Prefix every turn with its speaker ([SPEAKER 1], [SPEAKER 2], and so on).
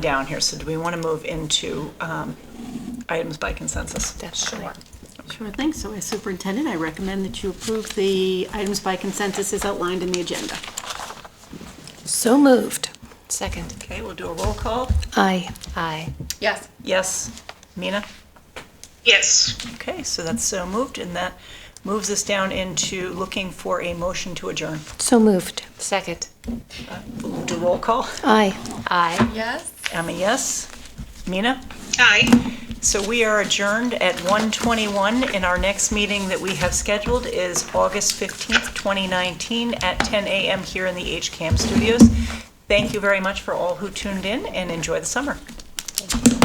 [SPEAKER 1] down here, so do we want to move into um, items by consensus?
[SPEAKER 2] Sure.
[SPEAKER 3] Sure thing. So as superintendent, I recommend that you approve the items by consensus as outlined in the agenda.
[SPEAKER 2] So moved. Second.
[SPEAKER 1] Okay, we'll do a roll call.
[SPEAKER 2] Aye. Aye.
[SPEAKER 4] Yes.
[SPEAKER 1] Yes, Mina?
[SPEAKER 5] Yes.
[SPEAKER 1] Okay, so that's so moved, and that moves us down into looking for a motion to adjourn.
[SPEAKER 2] So moved. Second.
[SPEAKER 1] We'll do roll call.
[SPEAKER 2] Aye. Aye.
[SPEAKER 4] Yes.
[SPEAKER 1] I'm a yes. Mina?
[SPEAKER 5] Aye.
[SPEAKER 1] So we are adjourned at 1:21, and our next meeting that we have scheduled is August 15th, 2019, at 10 a.m. here in the HCAM studios. Thank you very much for all who tuned in, and enjoy the summer.